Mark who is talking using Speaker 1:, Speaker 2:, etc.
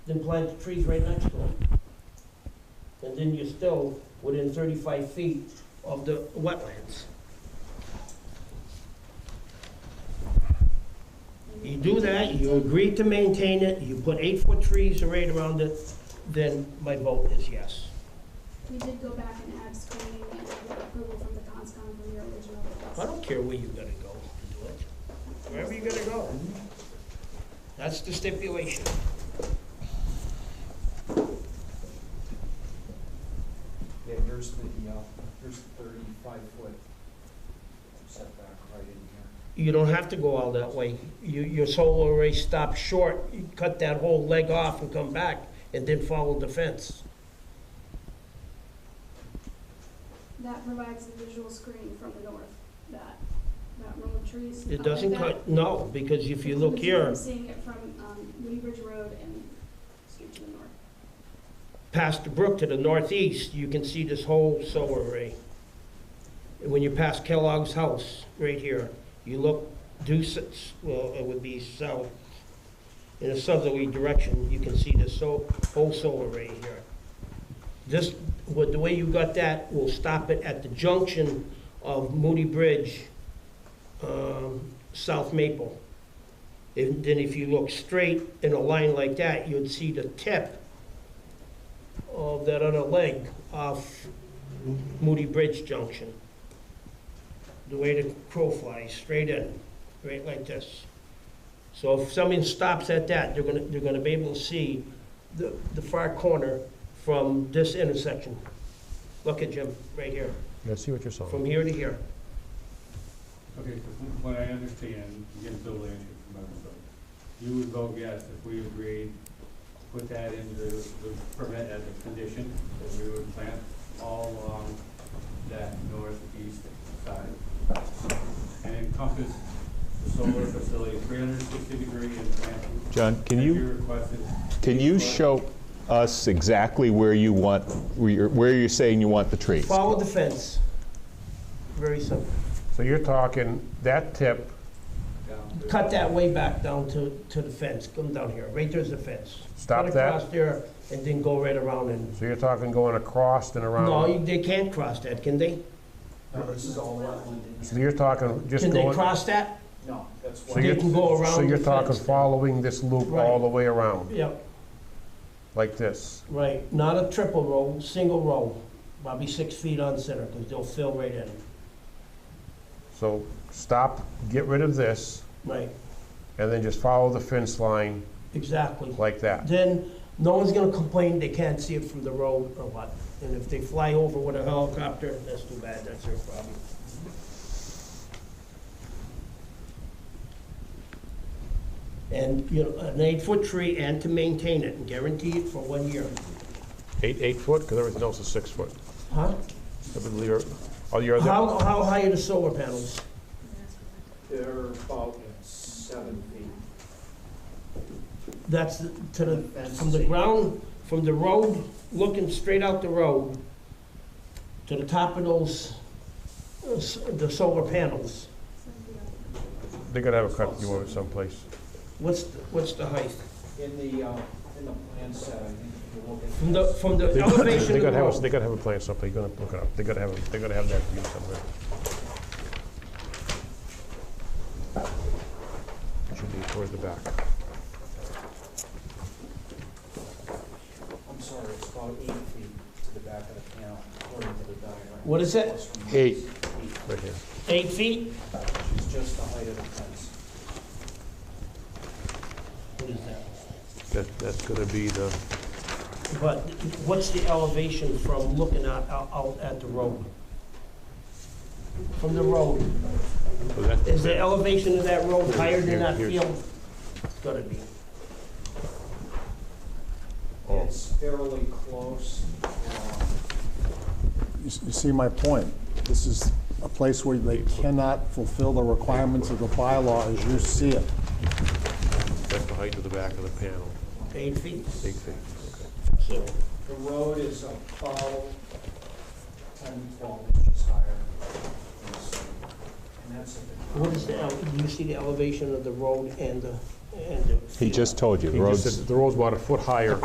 Speaker 1: then plant the trees right next to them. And then you're still within thirty-five feet of the wetlands. You do that, you agree to maintain it, you put eight-foot trees right around it, then my vote is yes.
Speaker 2: We did go back and add screening and get approval from the conscom from your original
Speaker 1: I
Speaker 2: request.
Speaker 1: don't care where you're gonna go to do it. Wherever you're gonna go. That's the stipulation.
Speaker 3: Yeah, here's the, uh, here's the thirty-five foot setback right in here.
Speaker 1: You don't have to go all that way. You, your solar array stops short, you cut that whole leg off and come back, and then follow the fence.
Speaker 2: That provides the visual screen from the north, that, that row of trees.
Speaker 1: It
Speaker 2: up like
Speaker 1: doesn't
Speaker 2: that.
Speaker 1: cut, no, because if you look
Speaker 2: Because
Speaker 1: here,
Speaker 2: I'm Seeing it from, um, Woody Bridge Road and Street to the north.
Speaker 1: past the brook to the northeast, you can see this whole solar array. And When you pass Kellogg's house, right here, you look due, s- s- well, it would be south, in a southerly direction, you can see this so- whole solar array here. This, with the way you got that, will stop it at the junction of Moody Bridge, um, South Maple. And then if you look straight in a line like that, you'd see the tip of that other leg off Moody Bridge Junction. The way the crow flies, straight in, right like this. So if someone stops at that, they're gonna, they're gonna be able to see the, the far corner from this intersection. Look at Jim, right here,
Speaker 4: Yeah, I see what you're
Speaker 1: from
Speaker 4: saying.
Speaker 1: here to here.
Speaker 5: Okay, so from what I understand, again, Bill Lanning from Eversource, you would vote yes if we agreed to put that into the the permit as a condition, that we would plant all along that northeast side. And encompass the solar facility three hundred and sixty degree and plant.
Speaker 4: John, can
Speaker 5: as
Speaker 4: you,
Speaker 5: requested.
Speaker 4: can you show us exactly where you want, where you're, where you're saying you want the trees?
Speaker 1: Follow the fence. Very simple.
Speaker 6: So you're talking that tip,
Speaker 5: down to-
Speaker 1: Cut that way back down to, to the fence, come down here, right there's the fence.
Speaker 6: Stop
Speaker 1: Cut
Speaker 6: that.
Speaker 1: across there, and then go right around and,
Speaker 6: so you're talking going across and
Speaker 1: no,
Speaker 6: around.
Speaker 1: you- they can't cross that, can they?
Speaker 3: No, this is all wetland in
Speaker 6: So
Speaker 3: here.
Speaker 6: you're talking just
Speaker 1: Can they
Speaker 6: going.
Speaker 1: cross that?
Speaker 3: No, that's
Speaker 6: so
Speaker 1: They
Speaker 6: you're-
Speaker 3: wetland.
Speaker 1: can go
Speaker 6: So
Speaker 1: around
Speaker 6: you're
Speaker 1: the
Speaker 6: talking
Speaker 1: fence.
Speaker 6: following this loop all
Speaker 1: Right.
Speaker 6: the way around,
Speaker 1: Yep,
Speaker 6: like this.
Speaker 1: right, not a triple row, single row, probably six feet on center, because they'll fill right in,
Speaker 6: So stop, get rid of this,
Speaker 1: right,
Speaker 6: and then just follow the fence line
Speaker 1: exactly.
Speaker 6: like that.
Speaker 1: Then, no one's gonna complain they can't see it from the road or what, and if they fly over with a helicopter, that's too bad, that's their problem. And, you know, an eight-foot tree, and to maintain it, and guarantee it for one year,
Speaker 4: Eight, eight foot, because everything else is six foot.
Speaker 1: huh?
Speaker 4: Oh, you're
Speaker 1: How, how high are the solar panels?
Speaker 3: They're about seven feet.
Speaker 1: That's the- to the,
Speaker 3: Fence
Speaker 1: from the
Speaker 3: is eight.
Speaker 1: ground, from the road, looking straight out the road, to the top of those, uh, s- the solar panels.
Speaker 6: They're gonna have a cut you over someplace.
Speaker 1: What's, the- what's the height?
Speaker 3: In the, uh, in the plan set, I think if you look at.
Speaker 1: From the, from the
Speaker 4: They gotta-
Speaker 1: elevation
Speaker 4: they
Speaker 1: of the
Speaker 4: gotta have, a- they
Speaker 1: road?
Speaker 4: gotta have a plan someplace, you're gonna look it up, they gotta have, a- they gotta have that view somewhere. It Should be toward the back.
Speaker 3: I'm sorry, it's about eight feet to the back of the panel, according to the diagram.
Speaker 1: What is it?
Speaker 3: Plus or minus
Speaker 4: Eight.
Speaker 3: Eight,
Speaker 4: Right here.
Speaker 1: Eight feet?
Speaker 3: which is just the height of the fence.
Speaker 1: What is that?
Speaker 4: That, that's gonna be the.
Speaker 1: But what's the elevation from looking out, out- out at the road? From the road, is the elevation of that road higher than that
Speaker 4: Here's-
Speaker 1: field? It's gotta be.
Speaker 4: Oh.
Speaker 3: It's fairly close. uh,
Speaker 7: You s- you see my point. This is a place where they cannot fulfill the requirements of the bylaw as you see it.
Speaker 4: That's the height of the back of the panel,
Speaker 1: Eight feet,
Speaker 4: big thing.
Speaker 1: so.
Speaker 3: The road is about 10, 12 inches higher. And that's at the.
Speaker 1: What is the, ele- do you see the elevation of the road and the and the
Speaker 4: He
Speaker 1: field.
Speaker 4: just told you, the
Speaker 6: He just
Speaker 4: road's
Speaker 6: said that the road's about a foot higher